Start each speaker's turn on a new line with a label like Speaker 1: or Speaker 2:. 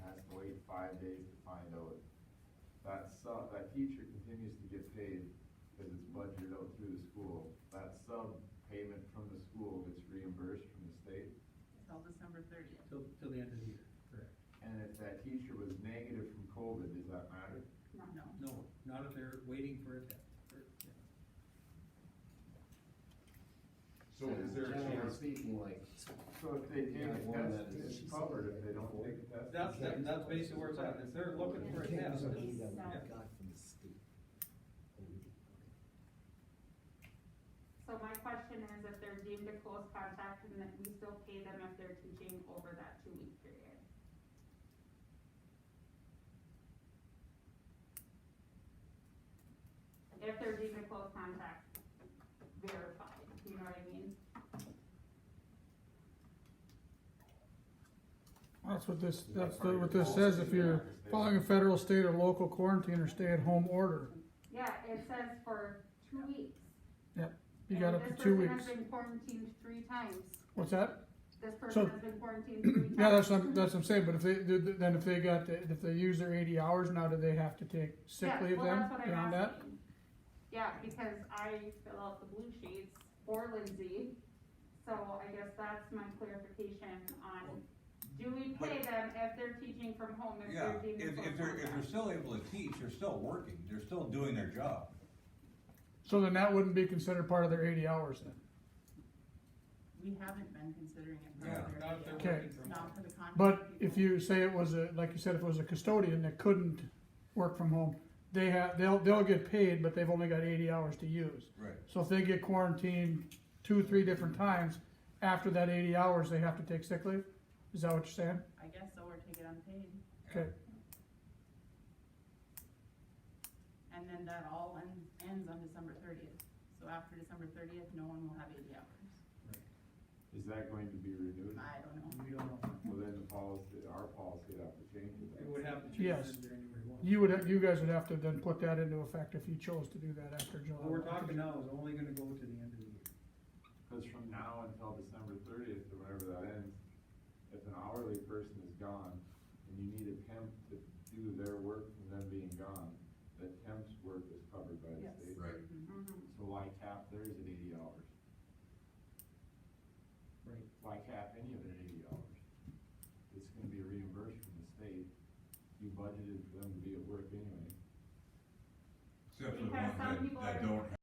Speaker 1: that sub, that teacher continues to get paid because it's budgeted out through the school. That sub payment from the school gets reimbursed from the state.
Speaker 2: Till December thirtieth.
Speaker 3: till, till the end of the year, correct?
Speaker 1: And if that teacher was negative from COVID, does that matter?
Speaker 2: No.
Speaker 3: No, not if they're waiting for a test, or, yeah.
Speaker 4: So is there a
Speaker 5: Generally
Speaker 4: chance,
Speaker 5: Speaking like,
Speaker 1: So if they take
Speaker 5: Yeah,
Speaker 1: a
Speaker 5: one that
Speaker 1: test,
Speaker 5: is-
Speaker 1: it's covered. If they don't take a test.
Speaker 3: That's,
Speaker 1: it's
Speaker 3: that-
Speaker 1: not.
Speaker 3: that's basically where it's at, if they're looking for a
Speaker 6: Yeah.
Speaker 3: test,
Speaker 6: Yeah.
Speaker 3: it's-
Speaker 6: that we
Speaker 3: yeah.
Speaker 6: got from the state. Oh, we did, okay.
Speaker 7: So my question is if they're deemed a close contact and that we still pay them if they're teaching over that two week period? If they're deemed a close contact verified, you know what I mean?
Speaker 8: That's what this, that's the- what this says, if you're following a federal, state, or local quarantine or stay-at-home order,
Speaker 7: Yeah, it says for two weeks.
Speaker 8: you got up to two weeks.
Speaker 7: This person has been quarantined three times.
Speaker 8: What's that?
Speaker 7: This person has been quarantined three times.
Speaker 8: Yeah, that's what, that's what I'm saying, but if they, then if they got, the- if they use their eighty hours, now do they have to take sick
Speaker 7: Yeah,
Speaker 8: leave
Speaker 7: well,
Speaker 8: then,
Speaker 7: that's what I'm
Speaker 8: beyond that?
Speaker 7: asking. Yeah, because I fill out the blue sheets for Lindsay, so I guess that's my clarification on, do we pay
Speaker 9: But-
Speaker 7: them if they're teaching from home, if
Speaker 9: Yeah,
Speaker 7: they're
Speaker 9: if,
Speaker 7: deemed a
Speaker 9: if they're, if they're still able to teach, they're still working, they're still doing their job.
Speaker 8: So then that wouldn't be considered part of their eighty hours then?
Speaker 2: We haven't been considering it. for
Speaker 9: Yeah.
Speaker 2: other-
Speaker 3: Not if they're
Speaker 8: Okay.
Speaker 3: working from home.
Speaker 2: Not for the contract.
Speaker 8: But if
Speaker 2: people.
Speaker 8: you say it was a, like you said, if it was a custodian that couldn't work from home, they have, they'll, they'll get paid, but they've only got eighty hours to use.
Speaker 9: Right.
Speaker 8: So if they get quarantined two, three different times, after that eighty hours, they have to take sick leave? Is that what you're saying?
Speaker 2: I guess so, or take it unpaid.
Speaker 8: Okay,
Speaker 2: And then that all en- ends on December thirtieth. So after December thirtieth, no one will have eighty hours.
Speaker 1: Is that going to be renewed?
Speaker 2: I don't know.
Speaker 3: We don't know,
Speaker 1: Well, then the policy, our policy would have to change. to that.
Speaker 3: it would have to change
Speaker 8: Yes.
Speaker 3: in January one.
Speaker 8: you would, you guys would have to then put that into effect if you chose to do that after July.
Speaker 3: What we're talking now is only gonna go to the end of the year.
Speaker 1: Cause from now until December thirtieth, or whenever that ends, if an hourly person is gone, and you need a temp to do their work from them being gone, the temp's work is covered by the
Speaker 2: Yes.
Speaker 1: state.
Speaker 4: Right.
Speaker 7: Mhm.
Speaker 1: So why cap theirs at eighty hours?
Speaker 3: Right.
Speaker 1: Why cap any of it at eighty hours? It's gonna be reimbursed from the state, you budgeted for them to be at work anyway.
Speaker 4: except for the
Speaker 7: Because
Speaker 4: ones
Speaker 7: some people
Speaker 4: that, that
Speaker 7: are-
Speaker 4: don't